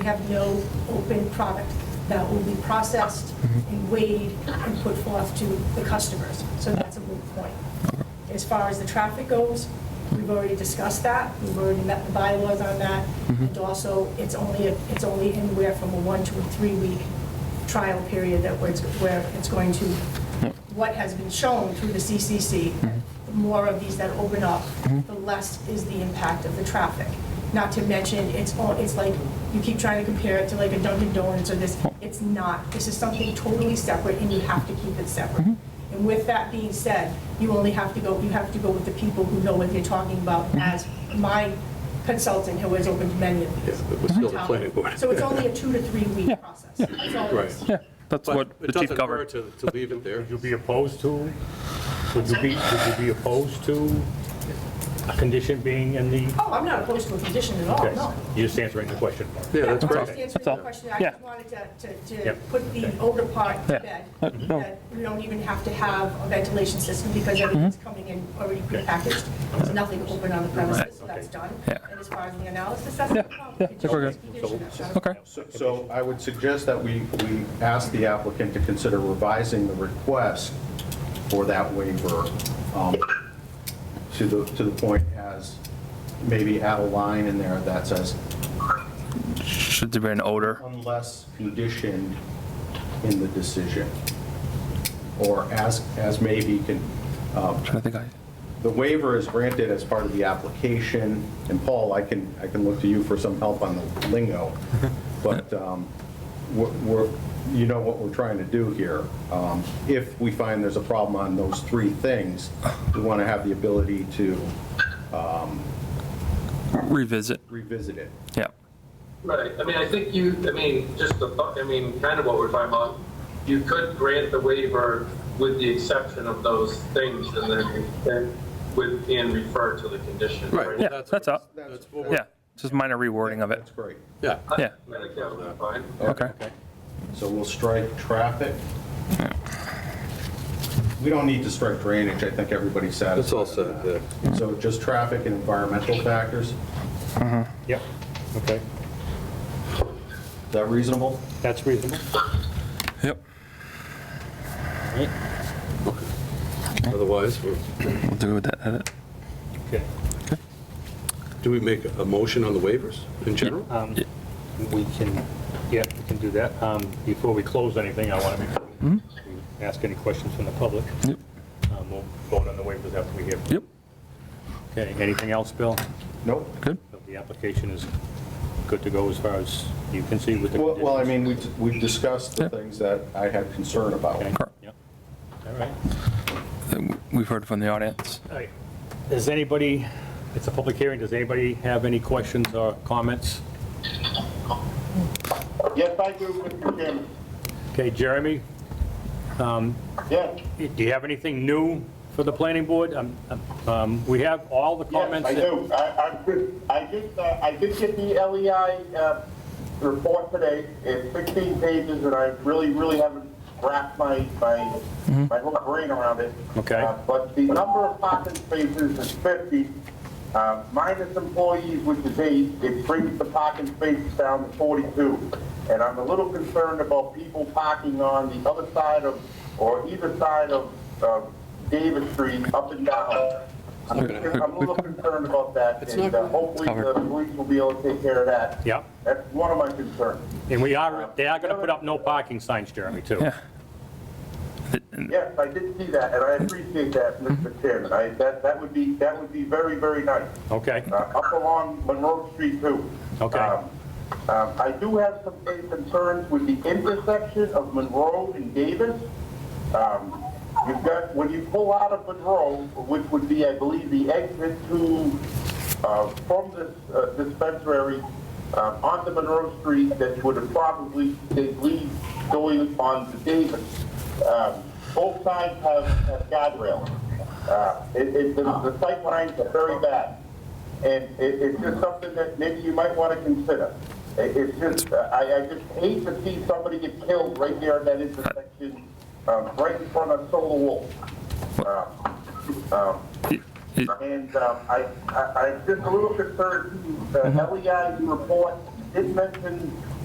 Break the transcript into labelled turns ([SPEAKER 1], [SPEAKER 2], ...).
[SPEAKER 1] We have no open product that will be processed and weighed and put forth to the customers. So that's a moot point. As far as the traffic goes, we've already discussed that. We've already met the bylaws on that. And also, it's only, it's only anywhere from a one to a three-week trial period that where it's, where it's going to, what has been shown through the CCC, the more of these that open up, the less is the impact of the traffic. Not to mention, it's all, it's like, you keep trying to compare it to like a Dunkin' Donuts or this, it's not. This is something totally separate, and you have to keep it separate.
[SPEAKER 2] Mm-hmm.
[SPEAKER 1] And with that being said, you only have to go, you have to go with the people who know what they're talking about,
[SPEAKER 2] Mm-hmm.
[SPEAKER 1] as my consultant who has opened many of these.
[SPEAKER 3] Yeah, but we're still the planning board.
[SPEAKER 1] So it's only a two to three
[SPEAKER 2] Yeah,
[SPEAKER 1] week process. That's all it is.
[SPEAKER 3] Right.
[SPEAKER 2] Yeah, that's
[SPEAKER 3] But
[SPEAKER 2] what the
[SPEAKER 3] it
[SPEAKER 2] chief
[SPEAKER 3] doesn't
[SPEAKER 2] covered.
[SPEAKER 3] hurt to, to leave it there.
[SPEAKER 4] Would you be opposed to, would you be, would you be opposed to a condition being in the,
[SPEAKER 1] Oh, I'm not opposed to a condition at all,
[SPEAKER 4] okay,
[SPEAKER 1] no.
[SPEAKER 4] you just answering the question.
[SPEAKER 3] Yeah, that's
[SPEAKER 1] Just
[SPEAKER 3] great.
[SPEAKER 1] answering
[SPEAKER 2] That's all.
[SPEAKER 1] the question, I
[SPEAKER 2] Yeah.
[SPEAKER 1] just wanted to, to, to
[SPEAKER 4] Yep.
[SPEAKER 1] put the older part to
[SPEAKER 2] Yeah.
[SPEAKER 1] bed.
[SPEAKER 2] Uh, no. Mm-hmm.
[SPEAKER 1] That we don't even have to have a ventilation system because everything's coming in already prepackaged. There's nothing open on the premises, so that's done.
[SPEAKER 2] Yeah.
[SPEAKER 1] And as far as the analysis, that's no problem.
[SPEAKER 2] yeah, I think we're
[SPEAKER 1] It's just a condition, that's all.
[SPEAKER 2] Okay,
[SPEAKER 5] So- So I would suggest that we, we ask the applicant to consider revising the request for that waiver um, to the, to the point as maybe add a line in there that says
[SPEAKER 2] should there be an odor?
[SPEAKER 5] unless conditioned in the decision. Or as, as maybe can, um,
[SPEAKER 2] I think I,
[SPEAKER 5] the waiver is granted as part of the application, and Paul, I can, I can look to you for some help on the lingo, but um, we're, we're- you know what we're trying to do here. Um, If we find there's a problem on those three things, we want to have the ability to
[SPEAKER 2] revisit,
[SPEAKER 5] revisit it.
[SPEAKER 2] yeah.
[SPEAKER 6] Right, I mean, I think you, I mean, just the, bu- I mean, kind of what we're talking about, you could grant the waiver with the exception of those things and then, then with, and refer to the condition.
[SPEAKER 3] Right.
[SPEAKER 2] Yeah,
[SPEAKER 3] That's-
[SPEAKER 2] that's all,
[SPEAKER 3] That's what we're-
[SPEAKER 2] yeah, just minor rewording of it,
[SPEAKER 5] That's great.
[SPEAKER 3] Yeah,
[SPEAKER 2] yeah,
[SPEAKER 6] I think that would be fine.
[SPEAKER 2] okay.
[SPEAKER 5] So we'll strike traffic. We don't need to strike drainage, I think everybody's satisfied.
[SPEAKER 3] that's all
[SPEAKER 5] on
[SPEAKER 3] said,
[SPEAKER 5] that.
[SPEAKER 3] yeah.
[SPEAKER 5] So just traffic and environmental factors, is
[SPEAKER 4] Yep, okay,
[SPEAKER 5] that reasonable?
[SPEAKER 4] that's reasonable.
[SPEAKER 2] Yep,
[SPEAKER 4] All right,
[SPEAKER 3] Otherwise, we're-
[SPEAKER 2] we'll do with that edit.
[SPEAKER 4] Okay.
[SPEAKER 3] do we make a motion on the waivers in general?
[SPEAKER 4] Um, We can, yeah, we can do that. Um, Before we close anything, I want to make sure we ask any questions from the public.
[SPEAKER 2] Hmm? Yep.
[SPEAKER 4] Um, We'll vote on the waivers after we hear. from-
[SPEAKER 2] Yep,
[SPEAKER 4] Okay, anything else, Bill?
[SPEAKER 5] Nope.
[SPEAKER 2] good,
[SPEAKER 4] The application is good to go as far as you can see with the.
[SPEAKER 5] Well, well, I
[SPEAKER 4] conditions.
[SPEAKER 5] mean, we we discussed the
[SPEAKER 2] Yep.
[SPEAKER 5] things that I had concern about.
[SPEAKER 4] Okay,
[SPEAKER 2] Correct.
[SPEAKER 4] yep. All right.
[SPEAKER 2] Then we've heard from the audience.
[SPEAKER 4] All right. Does anybody, it's a public hearing, does anybody have any questions or comments?
[SPEAKER 7] Yes, I do, Mr. Chairman.
[SPEAKER 4] Okay, Jeremy,
[SPEAKER 7] Yes,
[SPEAKER 4] do you have anything new for the planning board? Um, um, We have all the
[SPEAKER 7] yes,
[SPEAKER 4] comments.
[SPEAKER 7] I
[SPEAKER 4] that-
[SPEAKER 7] do. I, I, did- I did, uh, I did get the LEI, uh, report today. It's sixteen pages and I really, really haven't wrapped my, my, my whole brain around it.
[SPEAKER 4] Mm-hmm. Okay.
[SPEAKER 7] Uh, But the number of parking spaces is fifty, uh, minus employees, which is eight, it brings the parking spaces down to forty-two. And I'm a little concerned about people parking on the other side of, or either side of, uh, Davis Street, up and down. I'm I'm a little concerned about that, and uh, hopefully the police will be able to take care of that.
[SPEAKER 4] Yep.
[SPEAKER 7] That's one of my concerns.
[SPEAKER 4] And we are, they are going to put up no parking signs, Jeremy, too.
[SPEAKER 2] Yeah.
[SPEAKER 7] Yes, I did see that, and I appreciate that, Mr. Chairman. I, that, that would be, that would be very, very nice.
[SPEAKER 4] Okay,
[SPEAKER 7] Uh, Up along Monroe Street too.
[SPEAKER 4] Okay.
[SPEAKER 7] Um, um, I do have some big concerns with the intersection of Monroe and Davis. Um, You've got, when you pull out of Monroe, which would be, I believe, the exit to, uh, from this uh, dispensary uh, onto Monroe Street, that would have probably, they lead going on to Davis. Um, Both sides have have guardrails. Uh, It, it, the the sight lines are very bad. And it, it's just something that maybe you might want to consider. It- It's just, I, I just hate to see somebody get killed right there in that intersection, um, right in front of Solar Wolf. Um, um,
[SPEAKER 2] It- it-
[SPEAKER 7] And um, I, I, I'm just a little concerned, the LEI report did mention